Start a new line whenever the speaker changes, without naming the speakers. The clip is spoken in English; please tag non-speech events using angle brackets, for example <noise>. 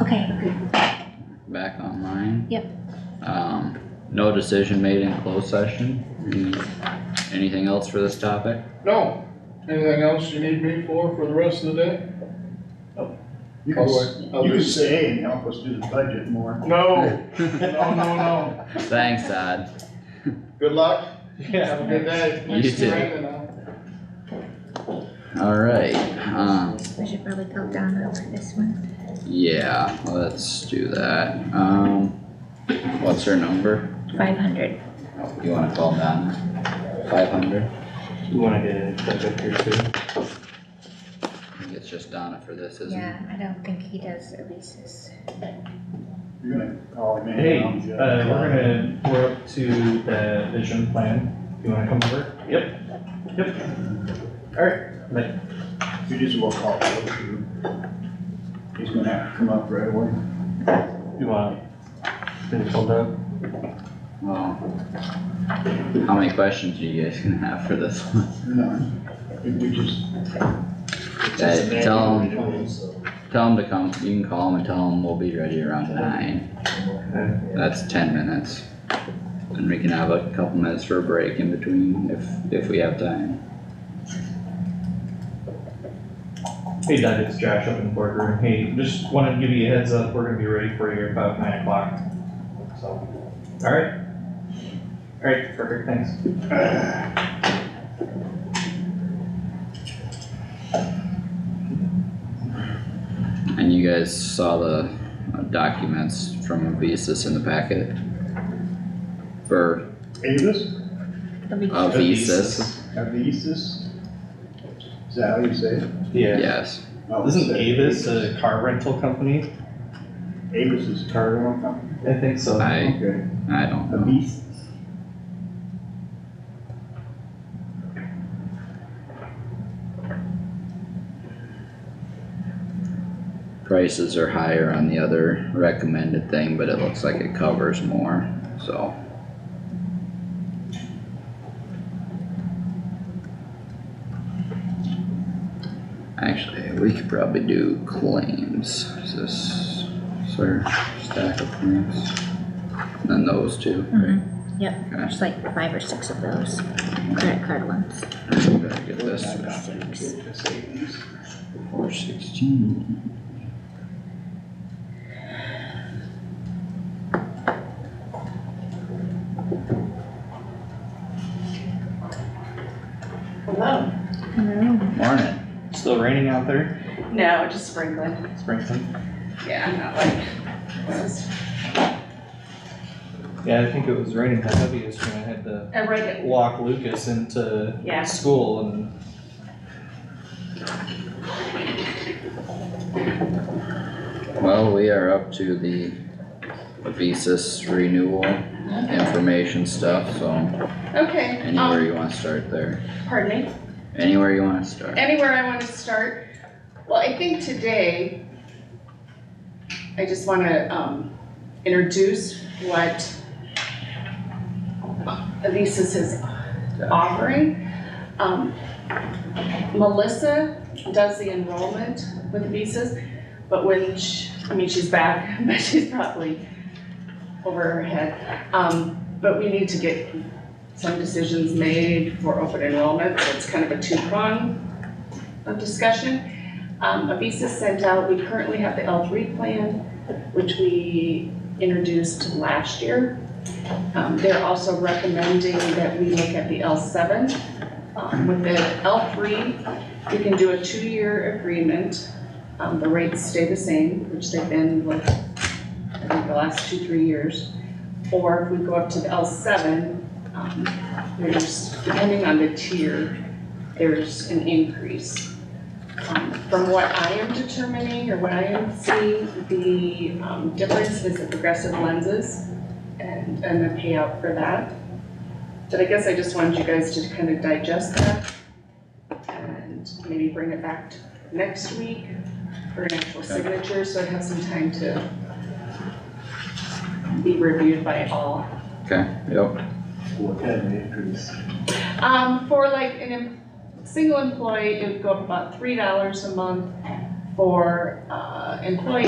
Okay,
back online.
Yep.
Um, no decision made in closed session. Mm, Anything else for this topic?
No, anything else you need me for, for the rest of the day?
You can, s-
Otherwise, I'll
you can
just-
say, hey, and help us do the budget more. <laughs>
No, no, no, no.
Thanks, Todd.
Good luck. Yeah. Have a good day.
You
Nice to
too.
meet you.
Alright, um,
we should probably go down over this one.
yeah, let's do that. Um, what's her number? Oh,
Five hundred.
You wanna call Donna? Five hundred?
You wanna get it clicked up here too?
I think it's just Donna for this, isn't it?
Yeah, I don't think he does Elise's.
You're gonna call him in.
Hey,
um,
uh, we're gonna, we're up to the vision plan. You wanna come over? Yep. Yep.
You just will call him. too. He's gonna have to come up right away.
You want, did it hold up?
Well, Oh. how many questions are you guys gonna have for this one?
No, if we just.
Hey, tell him,
So,
Tell them to come, you can call them and tell them we'll be ready around nine. That's ten minutes. And we can have a couple minutes for a break in between if, if we have time.
Hey Doug, it's Josh up in the boardroom. Hey, just wanted to give you a heads up, we're gonna be ready for you about nine o'clock. So, alright? Alright, perfect, thanks.
And you guys saw the uh, documents from Avisus in the packet? For
Avis,
Oh,
Avisus,
Avisis? Is that how you say it? Oh,
Yeah.
yes.
No, it's
Isn't Avis a car rental company?
Avis is a car rental company.
I think so.
I,
Okay,
I don't know.
Avis.
Prices are higher on the other recommended thing, but it looks like it covers more, so. Actually, we could probably do claims, is this, sir, stack of claims? And Then those two.
Mm-hmm, yep,
Okay,
there's like five or six of those credit card ones.
we better get this,
Six.
four sixteen.
Hello.
Hello.
Morning,
Still raining out there,
No, just sprinkling.
Springton?
Yeah, not like, this is-
Yeah, I think it was raining the heaviest when I had to
I read it.
walk Lucas into
Yeah.
school and
well, we are up to the Visa's renewal information stuff, so
Okay,
anywhere
um,
you wanna start there.
pardon me.
Anywhere you wanna start.
Anywhere I wanna start? Well, I think today, I just wanna, um, introduce what Elisa's is offering. Um, Melissa does the enrollment with Elisa's, but when she, I mean, she's back, <laughs> but she's probably over her head. Um, but we need to get some decisions made for open enrollment, so it's kind of a two-prong of discussion. Um, Avisa sent out, we currently have the L three plan, which we introduced last year. Um, they're also recommending that we look at the L seven. Um, with the L three, we can do a two-year agreement. Um, the rates stay the same, which they've been like, I think the last two, three years. Or if we go up to the L seven, um, there's, depending on the tier, there's an increase. Um, From what I am determining or what I am seeing, the um, difference is the progressive lenses and, and the payout for that. But I guess I just wanted you guys to kind of digest that and maybe bring it back to next week for an actual signature, so it has some time to be reviewed by all.
Okay, yep,
What kind of increase?
Um, for like an, em- single employee, it would go up about three dollars a month. For, uh, employee